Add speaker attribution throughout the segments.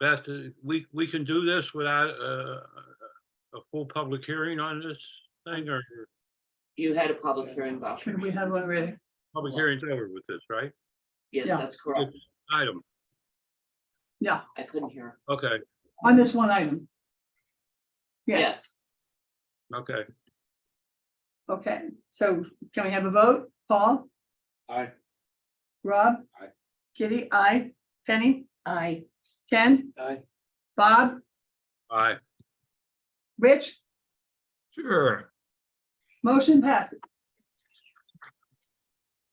Speaker 1: Beth, uh, we, we can do this without uh, a full public hearing on this thing or your
Speaker 2: You had a public hearing, Bob.
Speaker 3: Should we have one ready?
Speaker 1: public hearing's over with this, right?
Speaker 2: Yes,
Speaker 3: Yeah.
Speaker 2: that's correct.
Speaker 1: Item,
Speaker 3: Yeah,
Speaker 2: I couldn't hear.
Speaker 1: okay,
Speaker 3: on this one item. Yes,
Speaker 2: Yes,
Speaker 1: okay.
Speaker 3: okay, so can we have a vote? Paul,
Speaker 4: Aye.
Speaker 3: Rob?
Speaker 4: Aye.
Speaker 3: Kitty, I, Penny,
Speaker 5: I,
Speaker 3: Ken,
Speaker 4: Aye.
Speaker 3: Bob,
Speaker 1: All right,
Speaker 3: Rich,
Speaker 6: Sure.
Speaker 3: motion passes.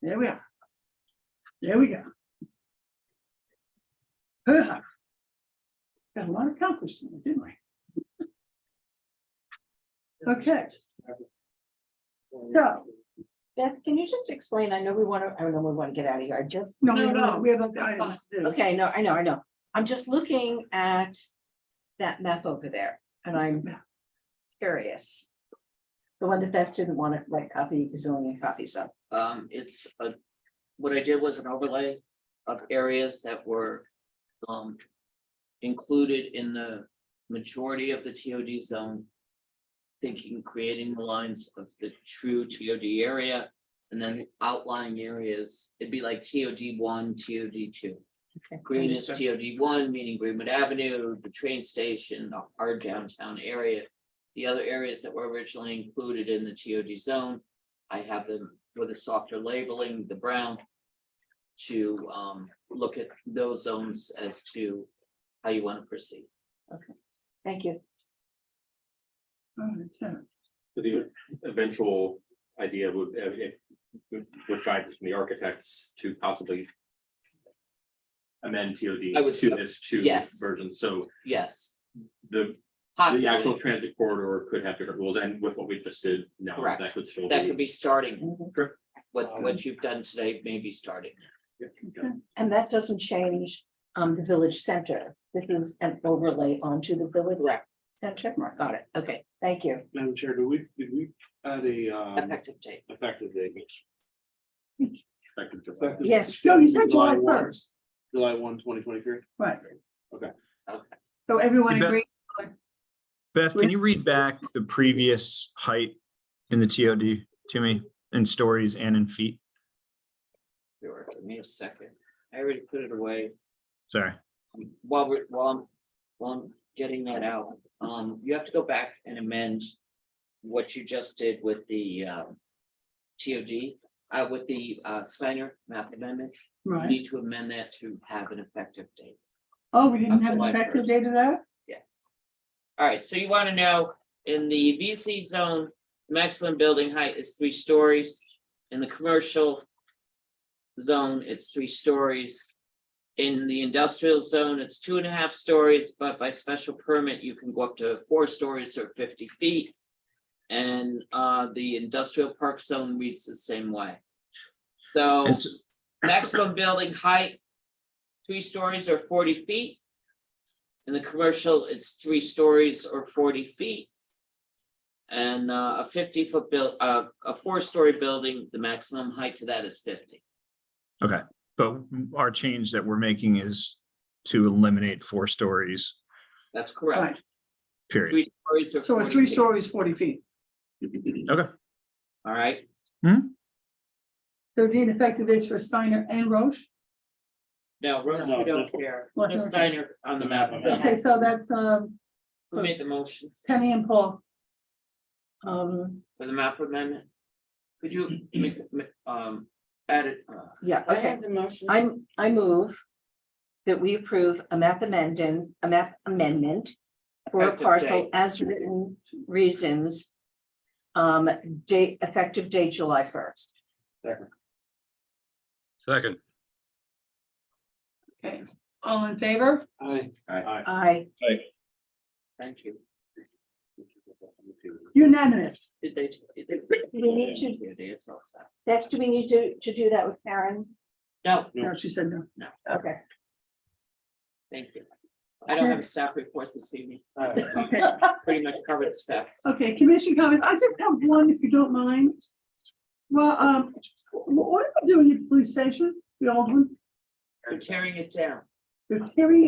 Speaker 3: There we are. There we go. Hoo-ha. Got a lot accomplished, didn't we? Okay. So,
Speaker 5: Beth, can you just explain? I know we want to, I know we want to get out of here. I just.
Speaker 3: no, no, no, we have other items to do.
Speaker 5: Okay, no, I know, I know. I'm just looking at that map over there and I'm curious. The one that Beth didn't want to like copy a zillion copies of.
Speaker 2: um, it's a, what I did was an overlay of areas that were, um, included in the majority of the TOD zone. Thinking, creating the lines of the true TOD area and then outlying areas. It'd be like TOD one, TOD two.
Speaker 5: Okay,
Speaker 2: Green is
Speaker 5: understood.
Speaker 2: TOD one, meaning Greenwood Avenue, the train station, our downtown area. The other areas that were originally included in the TOD zone, I have them with a softer labeling, the brown. To um look at those zones as to how you want to proceed.
Speaker 5: Thank you.
Speaker 3: All right, so-
Speaker 4: The eventual idea would, uh, it would would guidance from the architects to possibly. Amend
Speaker 2: I
Speaker 4: TOD
Speaker 2: would-
Speaker 4: to this two
Speaker 2: Yes.
Speaker 4: version, so
Speaker 2: Yes,
Speaker 4: the, the actual
Speaker 2: possibly,
Speaker 4: transit corridor could have different rules, and with what we just did, no,
Speaker 2: Correct.
Speaker 4: that could still
Speaker 2: that could
Speaker 4: be. Um,
Speaker 2: be starting,
Speaker 5: Mhm.
Speaker 2: what what you've done today may be starting.
Speaker 5: And that doesn't change um the village center. This is an overlay onto the village. Center, got it. Okay, thank you.
Speaker 7: Madam Chair, do we, did we add a um
Speaker 2: Effective date,
Speaker 7: effective date?
Speaker 4: Effective July.
Speaker 7: Effective
Speaker 5: Yes,
Speaker 3: No, you said
Speaker 7: July
Speaker 3: July
Speaker 7: one.
Speaker 3: first,
Speaker 7: July one, twenty twenty-three?
Speaker 3: right,
Speaker 2: okay.
Speaker 3: so everyone
Speaker 6: You bet.
Speaker 3: agrees,
Speaker 6: Beth,
Speaker 3: Please.
Speaker 6: can you read back the previous height in the TOD to me in stories and in feet?
Speaker 2: Sure, give me a second, I already put it away.
Speaker 6: Sorry.
Speaker 2: While we're, while I'm, while I'm getting that out, um, you have to go back and amend what you just did with the, um, TOD, uh, with the, uh, Steiner map amendment. You
Speaker 3: right,
Speaker 2: need to amend that to have an effective date.
Speaker 3: oh, we didn't
Speaker 2: Up
Speaker 3: have an
Speaker 2: July
Speaker 3: effective
Speaker 2: 1st.
Speaker 3: date of that?
Speaker 2: All right, so you want to know, in the VC zone, maximum building height is three stories. In the commercial zone, it's three stories. In the industrial zone, it's two and a half stories, but by special permit, you can go up to four stories or fifty feet. And uh, the industrial park zone reads the same way. So
Speaker 6: And so-
Speaker 2: maximum building height, three stories or forty feet. In the commercial, it's three stories or forty feet. And uh, a fifty-foot build, uh, a four-story building, the maximum height to that is fifty.
Speaker 6: But our change that we're making is to eliminate four stories,
Speaker 2: That's correct.
Speaker 6: period.
Speaker 2: Three stories or
Speaker 3: So a
Speaker 2: forty
Speaker 3: three
Speaker 2: feet, all
Speaker 3: stories, forty feet,
Speaker 2: right?
Speaker 3: so we need effective dates for Steiner and Roche?
Speaker 2: No, Rose,
Speaker 7: No,
Speaker 2: we don't
Speaker 7: that's what-
Speaker 2: care.
Speaker 3: What-
Speaker 2: No Steiner on the map.
Speaker 3: Okay, so that's, um,
Speaker 2: Who made the motions
Speaker 3: Penny and Paul,
Speaker 5: Um,
Speaker 2: for the map amendment? Could you, make um, add it, uh,
Speaker 5: yeah, okay.
Speaker 2: the motion.
Speaker 5: I'm, I move that we approve a map amendment, a map amendment for a
Speaker 2: Effective date.
Speaker 5: parcel as written reasons. Um, date, effective date July first.
Speaker 1: Second,
Speaker 3: okay, all in favor?
Speaker 7: Aye.
Speaker 4: Aye.
Speaker 5: I,
Speaker 2: Thank you.
Speaker 3: Unanimous,
Speaker 2: Did they? did they-
Speaker 5: We need to-
Speaker 2: Yeah, they- it's all set.
Speaker 5: that's, do we need to, to do that with Karen?
Speaker 2: No,
Speaker 3: no, she said no.
Speaker 5: Okay.
Speaker 2: thank you. I don't have a staff report this evening. Uh,
Speaker 3: Okay,
Speaker 2: Pretty much covered staff.
Speaker 3: Okay, commission comments. I just have one, if you don't mind. Well, um, wh- what are we doing at the police station, the old one?
Speaker 2: They're tearing it down.
Speaker 3: They're tearing